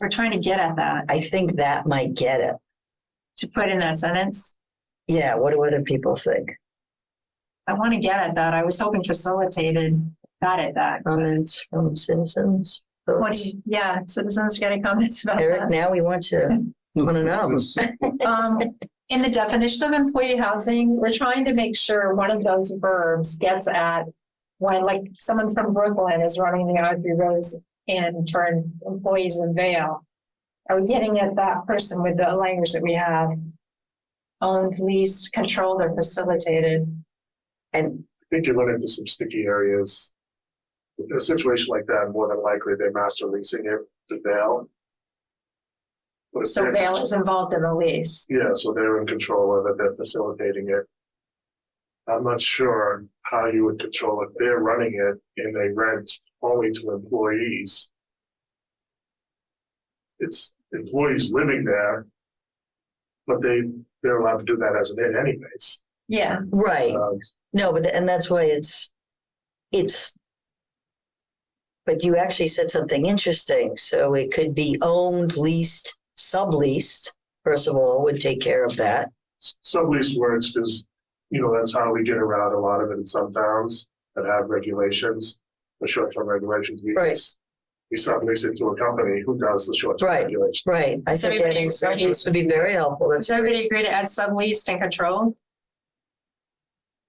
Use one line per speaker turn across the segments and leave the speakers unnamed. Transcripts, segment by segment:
We're trying to get at that,
I think that might get it.
to put in that sentence.
Yeah, what do other people think?
I want to get at that. I was hoping facilitated, got at that.
Comments from citizens?
What do you, yeah, citizens, you got any comments about
Eric,
that?
now we want to, want to know.
Um, in the definition of employee housing, we're trying to make sure one of those verbs gets at when like someone from Brooklyn is running the Audrey Rose and turn employees in Vale. Are we getting at that person with the language that we have? Owned, leased, controlled, or facilitated?
And
think you run into some sticky areas. In a situation like that, more than likely they're master leasing it to Vail. But if
So
they're-
Vale is involved in the lease.
Yeah, so they're in control of it, they're facilitating it. I'm not sure how you would control it. They're running it and they rent only to employees. It's employees living there. But they, they're allowed to do that as an in anyways.
Yeah,
right,
Um,
no, but and that's why it's it's. But you actually said something interesting. So it could be owned, leased, subleased. First of all, would take care of that.
sublease works because, you know, that's how we get around a lot of it in some towns that have regulations, the short-term regulations. We
Right.
just- We sublease it to a company who does the short-term
Right.
regulation.
Right. I
So
think
we-
adding sublease would be very helpful.
does everybody agree to add subleased and controlled?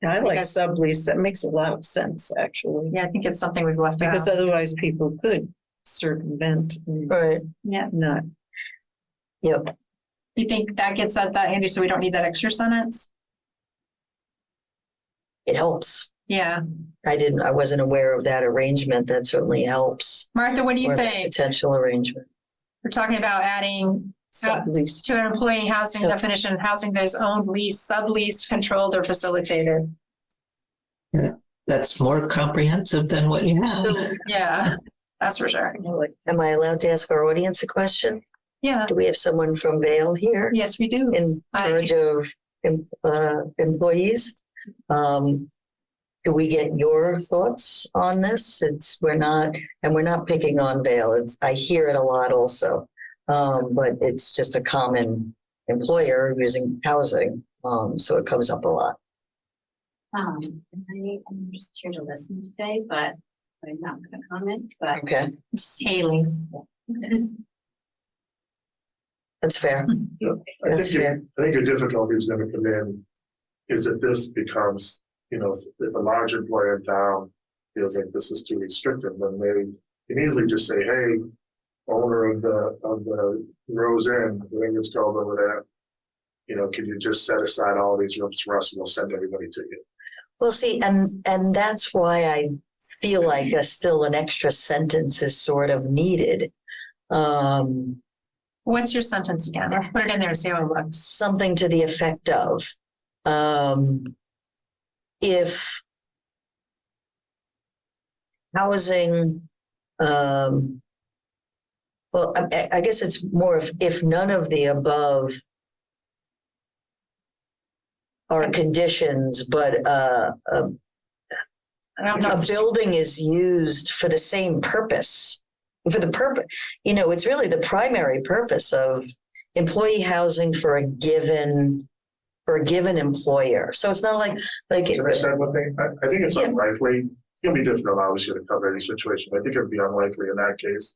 Yeah, I
I
like
guess-
sublease. That makes a lot of sense, actually,
Yeah, I think it's something we've left out.
because otherwise people could circumvent and
Right.
Yeah,
not.
Yep.
you think that gets at that, Andy, so we don't need that extra sentence?
It helps.
Yeah,
I didn't. I wasn't aware of that arrangement. That certainly helps.
Martha, what do you
or
think?
Potential arrangement.
We're talking about adding uh,
Sublease.
to an employee housing
So-
definition, housing that is owned, leased, subleased, controlled, or facilitated.
That's more comprehensive than what you
Oh.
have.
So
Yeah, that's for sure.
am I allowed to ask our audience a question?
Yeah,
Do we have someone from Vale here
yes, we do.
in
I-
charge of em- uh, employees? Um, Do we get your thoughts on this? It's, we're not, and we're not picking on Vale. It's, I hear it a lot also. Um, But it's just a common employer using housing, um, so it comes up a lot.
Um, I am just here to listen today, but I'm not gonna comment, but.
Okay,
This is Haley.
that's fair.
I
That's
think, your-
fair.
I think your difficulty is gonna come in is that this becomes, you know, if, if a large employer in town feels like this is too restrictive, then they can easily just say, hey, owner of the, of the Rose Inn, whatever it's called over there, you know, can you just set aside all these rooms for us and we'll send everybody to you?
Well, see, and, and that's why I feel like a, still an extra sentence is sort of needed. Um,
What's your sentence again? Let's put it in there, and see how it looks.
something to the effect of um, if housing um, well I- I, I guess it's more of if none of the above are conditions but uh, a,
I don't know.
a
if it's-
building is used for the same purpose for the purpose you know it's really the primary purpose of employee housing for a given for a given employer so it's not like like
Can I say one thing? I, I think it's
Yeah.
unlikely, it'll be difficult, obviously, to cover any situation, but I think it'd be unlikely in that case.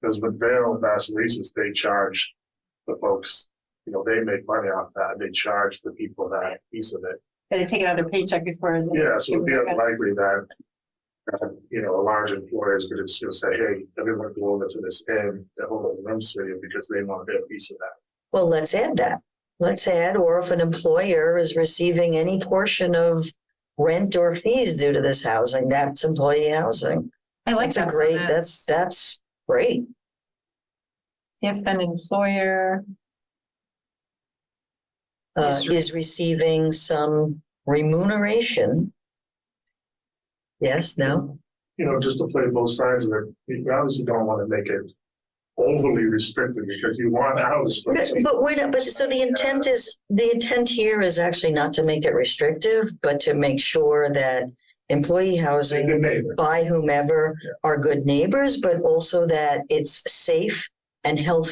Because with Vail and Bass Reese's, they charge the folks, you know, they make money off that, they charge the people that piece of it.
Better take another paycheck before. the-
Yeah, so it'd be unlikely that, uh, you know, a large employer is gonna just gonna say, hey, everyone go over to this end, the whole of them city, because they want their piece of that.
well let's add that let's add or if an employer is receiving any portion of rent or fees due to this housing that's employee housing
I like
that's a
that
great
sentence.
that's that's great
If an employer
uh,
Is
is
rec-
receiving some remuneration. Yes, no,
You know, just to play both sides of it, you obviously don't wanna make it overly restricted, because you want houses.
but but we're not, but so the intent is, the intent here is actually not to make it restrictive, but to make sure that employee
a
housing
good neighbor.
by whomever
Yeah.
are good neighbors, but also that it's safe and health